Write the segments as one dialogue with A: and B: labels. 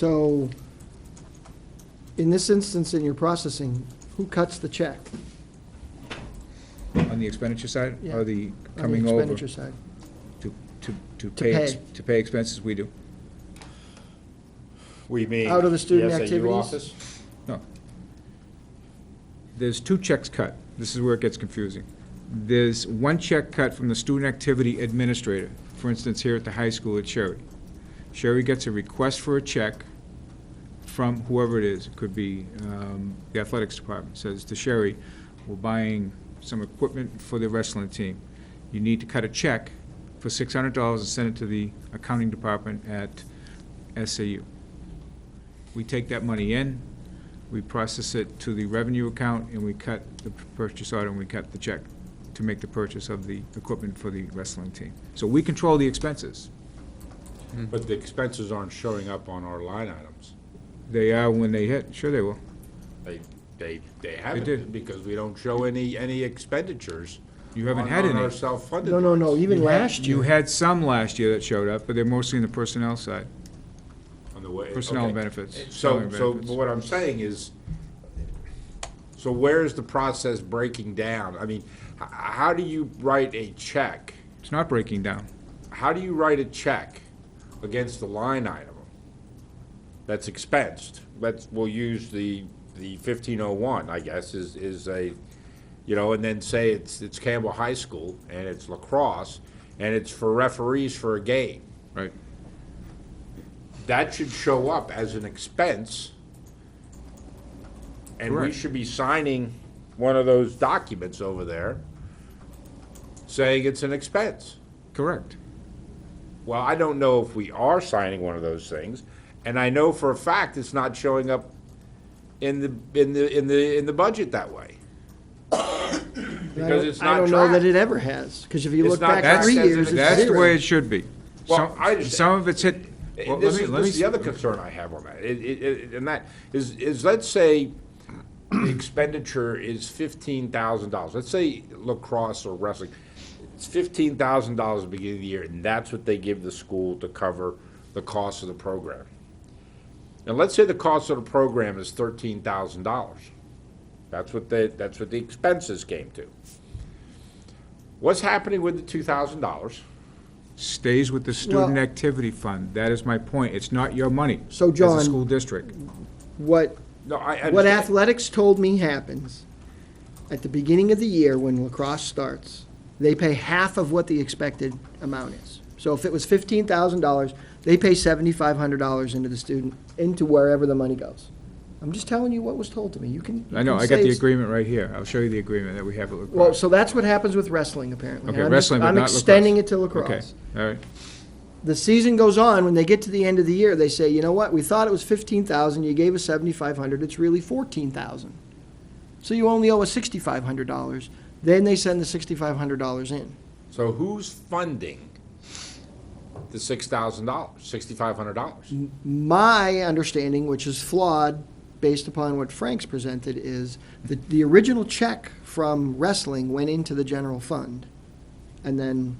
A: So, in this instance, in your processing, who cuts the check
B: On the expenditure side,
A: Yeah.
B: or the
A: on the
B: coming over?
A: expenditure side?
B: To, to, to pay, ex-
A: pay.
B: to pay expenses, we do.
C: We mean.
A: Out of the student
C: the SAU
A: activities?
C: office?
B: No. There's two checks cut. This is where it gets confusing. There's one check cut from the student activity administrator, for instance, here at the high school at Sherry. Sherry gets a request for a check from whoever it is. It could be um, the athletics department, says to Sherry, we're buying some equipment for the wrestling team. You need to cut a check for six hundred dollars and send it to the accounting department at SAU. We take that money in, we process it to the revenue account, and we cut the purchase order, and we cut the check to make the purchase of the equipment for the wrestling team. So we control the expenses. Hmm.
C: But the expenses aren't showing up on our line items.
B: They are when they hit, sure they will.
C: They, they, they haven't,
B: did.
C: because we don't show any, any expenditures.
B: You haven't
C: on-
B: had
C: On
B: any.
C: our self-funded.
A: No, no, no,
C: lines.
A: even
B: You had-
A: last
B: You
A: year,
B: had some last year that showed up, but they're mostly in the personnel side,
C: On the way.
B: personnel
C: okay.
B: and benefits. salary
C: So,
B: and
C: so
B: benefits.
C: what I'm saying is, so where is the process breaking down? I mean, h- how do you write a check?
B: It's not breaking down.
C: How do you write a check against the line item that's expensed? Let's, we'll use the, the fifteen oh one, I guess, is, is a, you know, and then say it's, it's Campbell High School and it's lacrosse and it's for referees for a game.
B: Right.
C: That should show up as an expense. And we
B: Correct.
C: should be signing one of those documents over there saying it's an expense.
B: Correct.
C: Well, I don't know if we are signing one of those things, and I know for a fact it's not showing up in the, in the, in the, in the budget that way.
A: I
C: Because it's
A: don't, I
C: not
A: don't know that
C: tracked.
A: it ever has, because if you
C: It's
A: look
C: not
A: back
C: tracked
A: three
C: as an
A: years, it's zero.
B: That's the way it should be.
C: Well,
B: Some-
C: I understand.
B: Some of it's hit. well,
C: This
B: let me- let
C: is, this
B: me
C: is the
B: s-
C: other concern I have on that, It- it- it- and that is, is let's say the expenditure is fifteen thousand dollars. Let's say lacrosse or wrestling, it's fifteen thousand dollars at the beginning of the year, and that's what they give the school to cover the cost of the program. And let's say the cost of the program is thirteen thousand dollars. That's what the, that's what the expenses came to. What's happening with the two thousand dollars?
B: Stays with the student
A: Well-
B: activity fund. That is my point. It's not your money.
A: So,
B: As
A: John-
B: a school district.
A: What,
C: No, I understand.
A: what athletics told me happens, at the beginning of the year when lacrosse starts, they pay half of what the expected amount is. So if it was fifteen thousand dollars, they pay seventy-five hundred dollars into the student, into wherever the money goes. I'm just telling you what was told to me. You can. you
B: I know,
A: can say
B: I got the
A: it's-
B: agreement right here. I'll show you the agreement that we have at
A: Well,
B: lacrosse.
A: so that's what happens with wrestling, apparently.
B: Okay,
A: I'm just-
B: wrestling, but not lacrosse.
A: I'm extending it to
B: Okay,
A: lacrosse.
B: all right.
A: The season goes on, when they get to the end of the year, they say, you know what, we thought it was fifteen thousand, you gave us seventy-five hundred, it's really fourteen thousand. So you only owe us sixty-five hundred dollars, then they send the sixty-five hundred dollars in.
C: So who's funding the six thousand dollars, sixty-five hundred dollars?
A: Mm. My understanding, which is flawed based upon what Frank's presented, is that the original check from wrestling went into the general fund. And then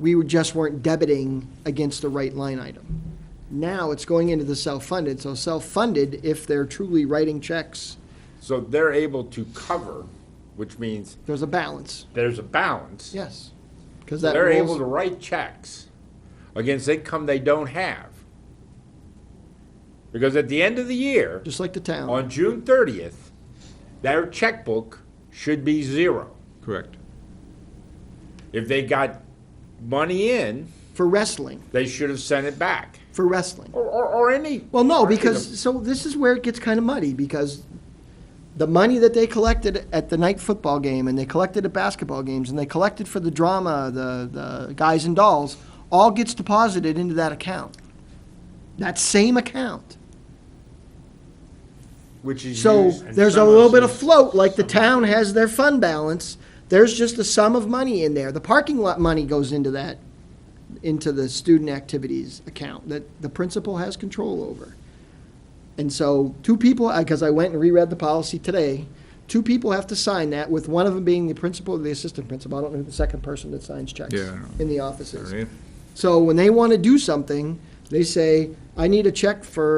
A: we were- just weren't debiting against the right line item. Now it's going into the self-funded, so self-funded, if they're truly writing checks,
C: So they're able to cover, which means
A: there's a balance.
C: there's a balance.
A: Yes. Because that
C: They're able
A: rolls-
C: to write checks against income they don't have. Because at the end of the year,
A: just like the town.
C: on June thirtieth, their checkbook should be zero.
B: Correct.
C: If they got money in,
A: For wrestling,
C: they should have sent it back,
A: for wrestling.
C: or, or, or any.
A: Well, no,
C: or any of
A: because, so this is where it gets kind of muddy, because the money that they collected at the night football game, and they collected at basketball games, and they collected for the drama, the, the guys and dolls, all gets deposited into that account. That same account.
C: Which is
A: So
C: used-
A: there's a little bit of float, like the town has their fund balance, there's just a sum of money in there. The parking lot money goes into that, into the student activities account that the principal has control over. And so two people, because I went and reread the policy today, two people have to sign that, with one of them being the principal or the assistant principal. I don't know who the second person that signs checks
B: Yeah, I know.
A: in the
B: All
A: offices.
B: right.
A: So when they want to do something, They say, I need a check for